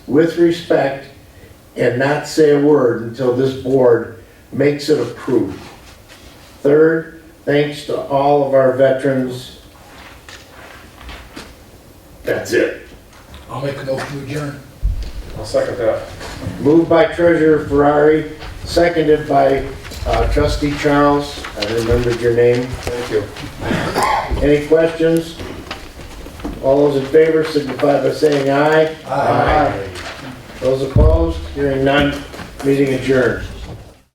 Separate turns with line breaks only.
with respect and not say a word until this board makes it approved. Third, thanks to all of our veterans. That's it.
I'll make a motion to adjourn.
I'll second that.
Moved by Treasurer Ferrari, seconded by uh, Trustee Charles. I remembered your name.
Thank you.
Any questions? All those in favor signify by saying aye. Those opposed, hearing none, meeting adjourned.